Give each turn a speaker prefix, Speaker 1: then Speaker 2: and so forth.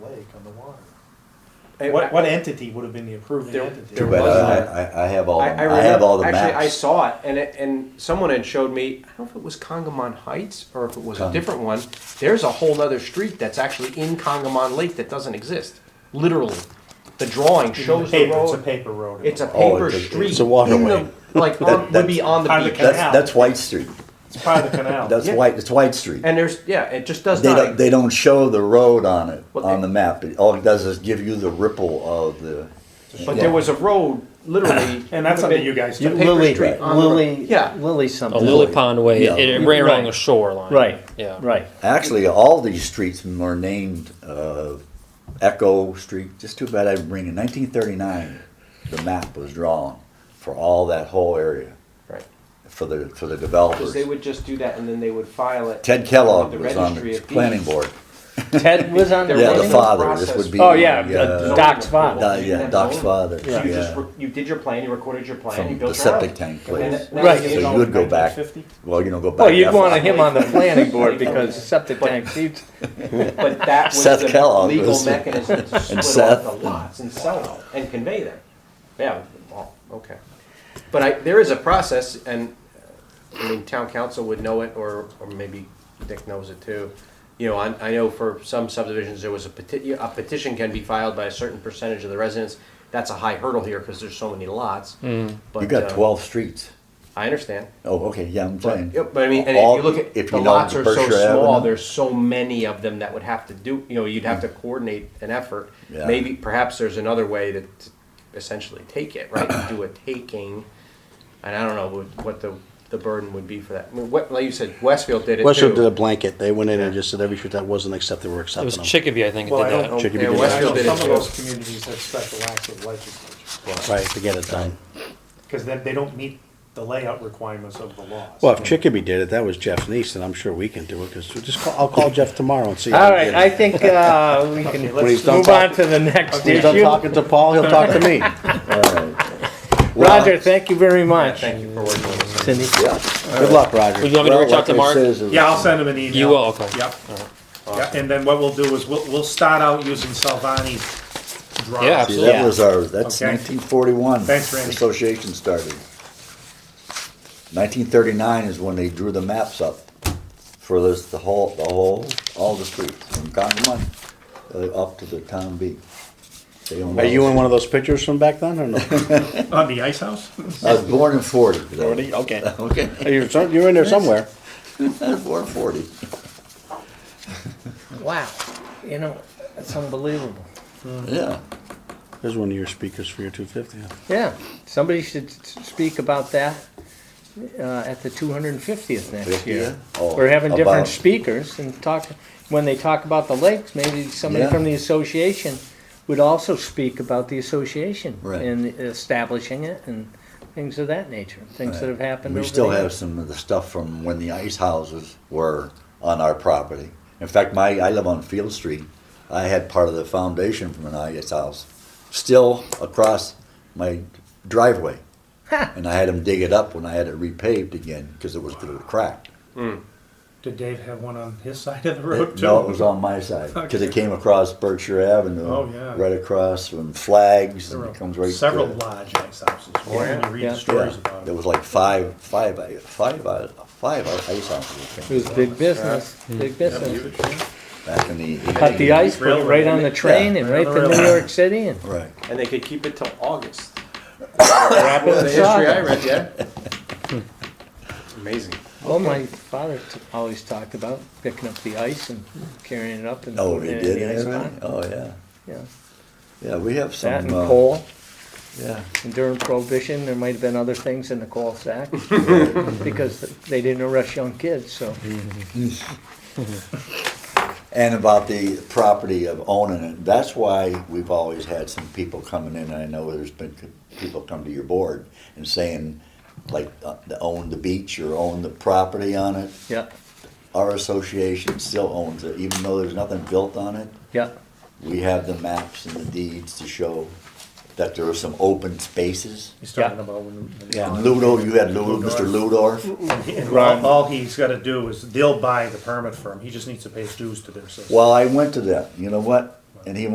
Speaker 1: take on the water.
Speaker 2: What, what entity would have been the approving
Speaker 3: There-
Speaker 2: entity?
Speaker 3: there
Speaker 4: But
Speaker 3: was
Speaker 4: I,
Speaker 3: a-
Speaker 4: I, I have all, the- Oh, I
Speaker 3: remember-
Speaker 4: have all the
Speaker 3: Actually, I
Speaker 4: maps.
Speaker 3: saw it, and it, and someone had showed me. I don't know if it was Congamon Heights or if it was
Speaker 4: Con-
Speaker 3: a different one. There's a whole other street that's actually in Congamon Lake that doesn't exist. Literally, the drawing shows the
Speaker 2: paper, it's a
Speaker 3: road.
Speaker 2: paper road.
Speaker 3: It's a
Speaker 4: Oh,
Speaker 3: paper
Speaker 4: it's a-
Speaker 3: street.
Speaker 4: it's a
Speaker 3: in
Speaker 4: waterway.
Speaker 3: the- like on, would be on the
Speaker 2: That's-
Speaker 3: beach,
Speaker 2: that's-
Speaker 4: That's, that's White Street.
Speaker 2: It's part of the canal.
Speaker 4: That's
Speaker 3: Yeah.
Speaker 4: White, it's White Street.
Speaker 3: and there's yeah, it just does
Speaker 4: They
Speaker 3: not.
Speaker 4: don't, they don't show the road on it,
Speaker 3: Well,
Speaker 4: on
Speaker 3: they-
Speaker 4: the map. It- All it does is give you the ripple of the.
Speaker 3: but
Speaker 4: yeah.
Speaker 3: there was a road literally,
Speaker 2: and that's something you guys
Speaker 3: the
Speaker 2: do.
Speaker 4: You-
Speaker 3: paper
Speaker 4: Lily-
Speaker 3: street.
Speaker 4: right.
Speaker 3: on the road.
Speaker 5: Lily,
Speaker 3: yeah,
Speaker 5: Lily something.
Speaker 6: A lily pond way,
Speaker 4: Yeah.
Speaker 6: it, it ran
Speaker 5: Right.
Speaker 6: along the shoreline.
Speaker 5: Right.
Speaker 6: Yeah.
Speaker 5: Right.
Speaker 4: Actually, all these streets were named, uh, Echo Street. Just too bad I didn't bring in nineteen thirty-nine. The map was drawn for all that whole area,
Speaker 3: right.
Speaker 4: for the, for the
Speaker 3: Because
Speaker 4: developers.
Speaker 3: they would just do that, and then they would file it.
Speaker 4: Ted Kellogg
Speaker 3: The
Speaker 4: was on
Speaker 3: registry
Speaker 4: the
Speaker 3: of
Speaker 4: planning
Speaker 3: deeds.
Speaker 4: board.
Speaker 5: Ted was on
Speaker 3: There
Speaker 4: Yeah, the
Speaker 3: wasn't a
Speaker 4: father, this
Speaker 3: process
Speaker 4: would be.
Speaker 3: for
Speaker 5: Oh, yeah,
Speaker 4: the, uh,
Speaker 5: the Doc's father.
Speaker 4: Doc-
Speaker 3: You
Speaker 4: Yeah,
Speaker 3: didn't
Speaker 4: Doc's
Speaker 3: have zoning.
Speaker 4: father,
Speaker 3: So you just,
Speaker 4: yeah.
Speaker 3: re- you did your plan, you recorded your plan, you
Speaker 4: From the
Speaker 3: built your house.
Speaker 4: septic tank
Speaker 3: And then
Speaker 4: place.
Speaker 3: that-
Speaker 5: Right.
Speaker 3: that was
Speaker 4: So
Speaker 3: it all.
Speaker 4: you would go back,
Speaker 2: 1950?
Speaker 4: well, you don't go back.
Speaker 5: Well, Oh, you'd
Speaker 4: that far.
Speaker 5: want him on the planning board because septic tank seeps.
Speaker 3: But that was
Speaker 4: Seth
Speaker 3: the
Speaker 4: Kellogg
Speaker 3: legal
Speaker 4: was-
Speaker 3: mechanism to split
Speaker 4: Seth.
Speaker 3: off the lots and sell them and convey them. Yeah, well, okay. But I, there is a process and, uh, I mean, town council would know it or, or maybe Dick knows it too. You know, I, I know for some subdivisions, there was a petition, a petition can be filed by a certain percentage of the residents. That's a high hurdle here because there's so many lots.
Speaker 5: Mm.
Speaker 3: But,
Speaker 4: You got
Speaker 3: uh,
Speaker 4: twelve streets.
Speaker 3: I understand.
Speaker 4: Oh, okay, yeah, I'm saying.
Speaker 3: Yep, but I mean, and if
Speaker 4: All-
Speaker 3: you look at,
Speaker 4: if
Speaker 3: the
Speaker 4: you know
Speaker 3: lots
Speaker 4: the
Speaker 3: are so
Speaker 4: Berkshire
Speaker 3: small,
Speaker 4: Avenue.
Speaker 3: there's so many of them that would have to do, you know, you'd have to coordinate an effort.
Speaker 4: Yeah.
Speaker 3: Maybe, perhaps there's another way to to essentially take it, right? Do a taking, and I don't know what- what the, the burden would be for that. I mean, what, like you said, Westfield did it too.
Speaker 7: Westfield did a blanket. They went in and just said every shoot that wasn't accepted, we're
Speaker 6: It was
Speaker 7: accepting them.
Speaker 6: Chicopee, I think,
Speaker 2: Well,
Speaker 6: did
Speaker 2: I don't
Speaker 6: that.
Speaker 2: know.
Speaker 7: Chickadee
Speaker 2: Yeah,
Speaker 7: did
Speaker 2: I know
Speaker 7: it.
Speaker 3: Oh, Westfield did it
Speaker 2: some of
Speaker 3: too.
Speaker 2: those communities have special acts of legislature
Speaker 7: Right, to get it done.
Speaker 2: because then they don't meet the layout requirements of the laws.
Speaker 7: Well, if Chickabee did it, that was Jeff's niece, and I'm sure we can do it, because just, call- I'll call Jeff tomorrow and see. if
Speaker 5: All
Speaker 7: we
Speaker 5: right,
Speaker 7: can
Speaker 5: I
Speaker 7: get it.
Speaker 5: think uh, we can
Speaker 2: Okay, let's-
Speaker 5: move on to the next
Speaker 7: When he's done
Speaker 5: issue.
Speaker 7: talking to Paul, he'll talk to me.
Speaker 5: Roger, thank you very much.
Speaker 3: Thank you for working with us.
Speaker 5: Cindy.
Speaker 7: Good luck, Roger.
Speaker 6: Would you want me to reach out to Mark?
Speaker 4: uh,
Speaker 2: Yeah, I'll send him an email.
Speaker 6: You will, okay.
Speaker 2: Yep. Yep, and then what we'll do is we'll, we'll start out using Salvani's drawings.
Speaker 6: Yeah,
Speaker 4: See,
Speaker 6: absolutely.
Speaker 4: that was our, that's
Speaker 2: Okay.
Speaker 4: nineteen forty-one.
Speaker 2: Thanks, Randy.
Speaker 4: Association started. Nineteen thirty-nine is when they drew the maps up for this, the whole, the whole, all the streets, from Congamon uh, up to the town beach. They owned
Speaker 7: Are
Speaker 4: all
Speaker 7: you
Speaker 4: the-
Speaker 7: in one of those pictures from back then, or no?
Speaker 2: On the ice house?
Speaker 4: I was born in forty. though.
Speaker 7: Okay.
Speaker 4: Okay,
Speaker 7: You're, some- you're in there somewhere.
Speaker 4: I was born in forty.
Speaker 5: Wow, you know, that's unbelievable.
Speaker 4: Yeah,
Speaker 7: There's one of your speakers for your two fifty.
Speaker 5: Yeah, somebody should s- speak about that uh, at the 250th next year.
Speaker 4: Oh,
Speaker 5: We're having
Speaker 4: about-
Speaker 5: different speakers and talk, when they talk about the lakes, maybe somebody
Speaker 4: Yeah.
Speaker 5: from the association would also speak about the association
Speaker 4: Right.
Speaker 5: and establishing it and things of that nature, things that have happened
Speaker 4: We
Speaker 5: over
Speaker 4: still
Speaker 5: the
Speaker 4: have
Speaker 5: years.
Speaker 4: some of the stuff from when the ice houses were on our property. In fact, my, I live on Field Street. I had part of the foundation from an ice house, still across my driveway. And I had them dig it up when I had it repaved again, because it was through the crack.
Speaker 2: Did Dave have one on his side of the road too?
Speaker 4: No, it was on my side, because it
Speaker 2: Okay.
Speaker 4: came across Berkshire Avenue.
Speaker 2: Oh, yeah.
Speaker 4: Right across from Flags,
Speaker 2: There
Speaker 4: and
Speaker 2: were
Speaker 4: it comes right. to-
Speaker 2: Several large ice houses, when you read
Speaker 5: Yeah.
Speaker 2: the stories
Speaker 4: Yeah,
Speaker 2: about
Speaker 4: there
Speaker 2: it.
Speaker 4: was like five, five, five, five ice houses that
Speaker 5: It
Speaker 4: came
Speaker 5: was big business, big business.
Speaker 4: back in the.
Speaker 5: Cut the ice, put it right on the train and right to New York City and
Speaker 4: Right.
Speaker 3: And they could keep it till August.
Speaker 5: wrap it
Speaker 3: The history I
Speaker 5: up.
Speaker 3: read, yeah. Amazing.
Speaker 5: Well, my father t- always talked about picking up the ice and carrying it up and
Speaker 4: Oh,
Speaker 5: putting
Speaker 4: they
Speaker 5: it in
Speaker 4: did.
Speaker 5: the ice
Speaker 4: everything?
Speaker 5: pond.
Speaker 4: Oh, yeah.
Speaker 5: Yeah.
Speaker 4: Yeah, we have some.
Speaker 5: That and
Speaker 4: uh,
Speaker 5: coal,
Speaker 4: Yeah,
Speaker 5: and during Prohibition, there might have been other things in the coal sack, because they didn't arrest young kids, so.
Speaker 4: and about the property of owning it. That's why we've always had some people coming in. I know there's been c- people come to your board and saying, like, uh, to own the beach or own the property on it.
Speaker 5: Yeah,
Speaker 4: Our association still owns it, even though there's nothing built on it.
Speaker 5: yeah,
Speaker 4: We have the maps and the deeds to show that there are some open spaces.
Speaker 2: He's talking about when.
Speaker 4: And Ludo, you had Ludo, Mr. Ludorf.
Speaker 2: And all, all he's gotta do is, they'll buy the permit for him, he just needs to pay his dues to their system.
Speaker 4: Well, I went to that. You know what? And he